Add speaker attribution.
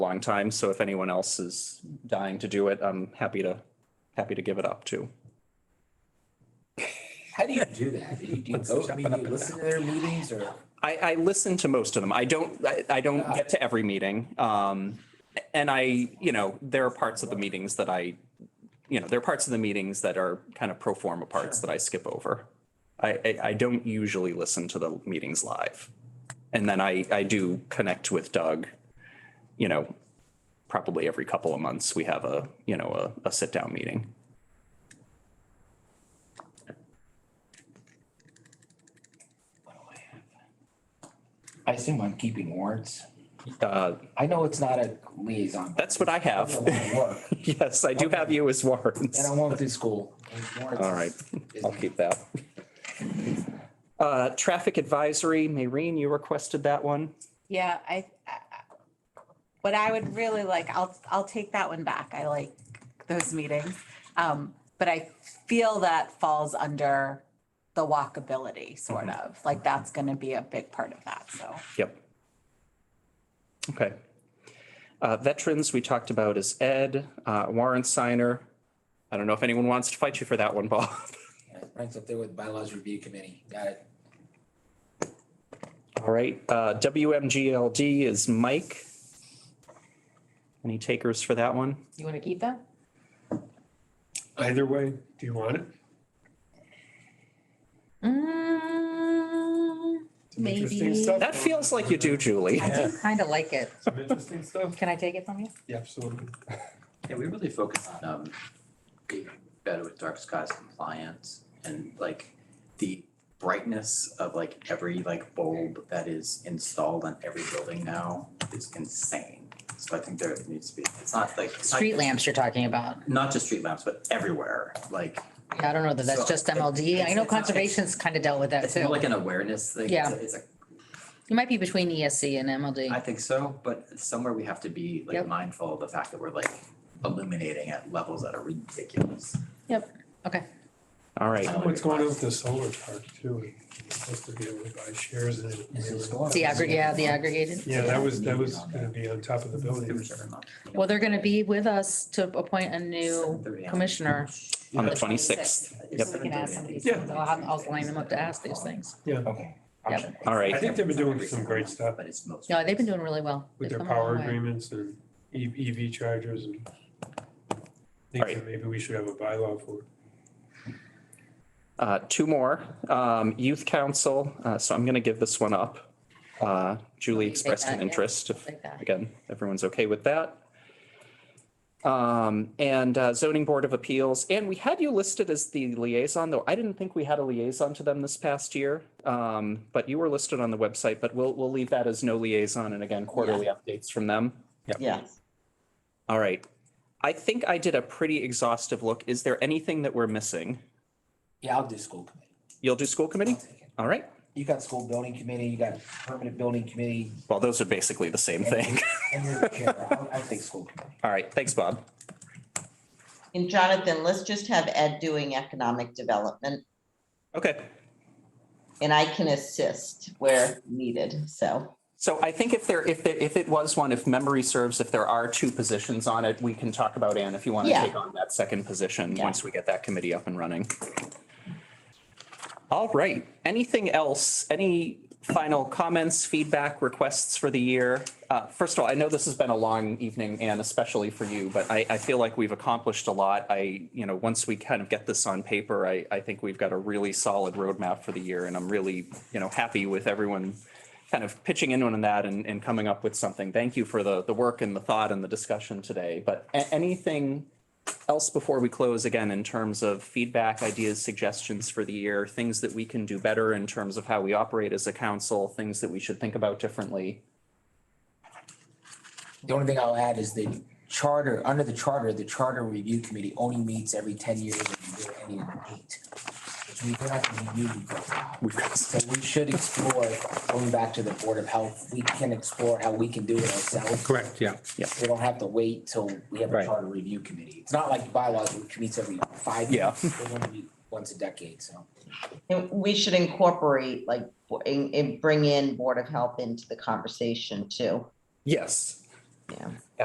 Speaker 1: long time. So if anyone else is dying to do it, I'm happy to, happy to give it up too.
Speaker 2: How do you do that? Do you, do you go, I mean, do you listen to their meetings or?
Speaker 1: I, I listen to most of them. I don't, I, I don't get to every meeting. Um, and I, you know, there are parts of the meetings that I, you know, there are parts of the meetings that are kind of pro forma parts that I skip over. I, I, I don't usually listen to the meetings live. And then I, I do connect with Doug, you know, probably every couple of months, we have a, you know, a, a sit down meeting.
Speaker 2: I assume I'm keeping warrants.
Speaker 1: Uh,
Speaker 2: I know it's not a liaison. but
Speaker 1: that's what I
Speaker 2: it's a
Speaker 1: have.
Speaker 2: lot of work.
Speaker 1: Yes, I do have you as warrants.
Speaker 2: And I won't do school. Warrants
Speaker 1: All
Speaker 2: is-
Speaker 1: right,
Speaker 2: is-
Speaker 1: I'll keep that. Uh, Traffic advisory, Maureen, you requested that one.
Speaker 3: Yeah, I, I- what I would really like, I'll, I'll take that one back. I like those meetings. Um, But I feel that falls under the walkability, sort
Speaker 4: Mm-hmm.
Speaker 3: of, like that's going to be a big part of that, so.
Speaker 1: Yep. Okay. Uh, Veterans, we talked about is Ed, uh, warrant signer. I don't know if anyone wants to fight you for that one, Bob.
Speaker 2: Yeah, Ranks up there with bylaws review committee. Got it.
Speaker 1: All right, uh, WMGLD is Mike. Any takers for that one?
Speaker 5: You want to keep that?
Speaker 6: Either way, do you want it?
Speaker 3: Mm,
Speaker 6: Some interesting
Speaker 5: Maybe.
Speaker 6: stuff.
Speaker 1: That feels like you do, Julie.
Speaker 5: I do kind of like it.
Speaker 6: Some interesting stuff.
Speaker 5: Can I take it from you?
Speaker 6: Yeah, absolutely.
Speaker 4: Yeah, we really focus on um being better with dark skies compliance and like the brightness of like every like bulb that is installed on every building now is insane. So I think there needs to be, it's not like. it's not-
Speaker 5: Street lamps you're talking about.
Speaker 4: Not just street lamps, but everywhere, like
Speaker 5: Yeah, I don't know that that's
Speaker 4: So,
Speaker 5: just MLD. I
Speaker 4: it's-
Speaker 5: know
Speaker 4: it's not-
Speaker 5: conservation's kind of dealt with that
Speaker 4: it's more
Speaker 5: too.
Speaker 4: like an awareness thing.
Speaker 5: Yeah.
Speaker 4: It's a-
Speaker 5: You might be between ESC and
Speaker 4: I
Speaker 5: MLD.
Speaker 4: think so, but somewhere we have to be like
Speaker 5: Yep.
Speaker 4: mindful of the fact that we're like illuminating at levels that are ridiculous.
Speaker 5: Okay.
Speaker 1: All right,
Speaker 6: I know What's going on with the solar park too? You're supposed to be able to buy shares in it.
Speaker 5: The aggregate, yeah, the aggregated.
Speaker 6: Yeah, that was, that was gonna be on top of the
Speaker 4: It
Speaker 6: building.
Speaker 4: was every month.
Speaker 5: Well, they're going to be with us to appoint a new commissioner.
Speaker 1: on the 26th.
Speaker 5: So we can ask some of these things. I'll, have- I'll line them up to ask these things.
Speaker 2: Okay.
Speaker 5: Yep.
Speaker 2: Option.
Speaker 1: All
Speaker 6: I
Speaker 1: right,
Speaker 6: think they've been doing some great stuff
Speaker 4: But it's most.
Speaker 5: No, they've been doing really well.
Speaker 6: with
Speaker 5: They've
Speaker 6: their
Speaker 5: come a long
Speaker 6: power
Speaker 5: way.
Speaker 6: agreements and E- EV chargers and
Speaker 1: All
Speaker 6: things
Speaker 1: right.
Speaker 6: that maybe we should have a bylaw for.
Speaker 1: Uh, two more. Um, Youth Council, uh, so I'm going to give this one up. Uh, Julie
Speaker 5: Okay, take
Speaker 1: expressed
Speaker 5: that,
Speaker 1: an
Speaker 5: yeah.
Speaker 1: interest. if-
Speaker 5: Take that.
Speaker 1: Again, everyone's okay with that. Um, and uh, Zoning Board of Appeals, and we had you listed as the liaison, though I didn't think we had a liaison to them this past year. Um, but you were listed on the website, but we'll, we'll leave that as no liaison and again, quarterly updates from them.
Speaker 7: Yeah.
Speaker 1: All right. I think I did a pretty exhaustive look. Is there anything that we're missing?
Speaker 2: Yeah, I'll do school committee.
Speaker 1: You'll do school committee?
Speaker 2: I'll take it.
Speaker 1: All right.
Speaker 2: You got school building committee, you got permanent building committee,
Speaker 1: Well, those are basically the same thing.
Speaker 2: and you're the chair. I'll, I'll take school committee.
Speaker 1: All right, thanks, Bob.
Speaker 7: And Jonathan, let's just have Ed doing economic development
Speaker 1: Okay,
Speaker 7: and I can assist where needed. So,
Speaker 1: so I think if there, if there, if it was one, if memory serves, if there are two positions on it, we can talk about Anne if you want to
Speaker 7: Yeah.
Speaker 1: take on that second position,
Speaker 7: Yeah.
Speaker 1: once we get that committee up and running. All right, anything else? Any final comments, feedback, requests for the year? Uh, First of all, I know this has been a long evening, Anne, especially for you, but I, I feel like we've accomplished a lot. I, you know, once we kind of get this on paper, I, I think we've got a really solid roadmap for the year. And I'm really, you know, happy with everyone kind of pitching in on that and, and coming up with something. Thank you for the, the work and the thought and the discussion today. But a- anything else before we close again in terms of feedback, ideas, suggestions for the year, things that we can do better in terms of how we operate as a council, things that we should think about differently?
Speaker 2: The only thing I'll add is the charter, under the charter, the charter review committee only meets every ten years and there any eight. Which means they're not gonna be newly voted out.
Speaker 1: We've got
Speaker 2: So we should explore, going back to the Board of Health, we can explore how we can do it ourselves.
Speaker 8: Correct, yeah.
Speaker 2: We don't have to wait till we have a
Speaker 8: Right.
Speaker 2: charter review committee. It's not like bylaws, which meets every five
Speaker 1: Yeah.
Speaker 2: years. They only meet Once a decade, so.
Speaker 7: and we should incorporate like, and, and bring in Board of Health into the conversation too.
Speaker 1: Yes.
Speaker 7: Yeah.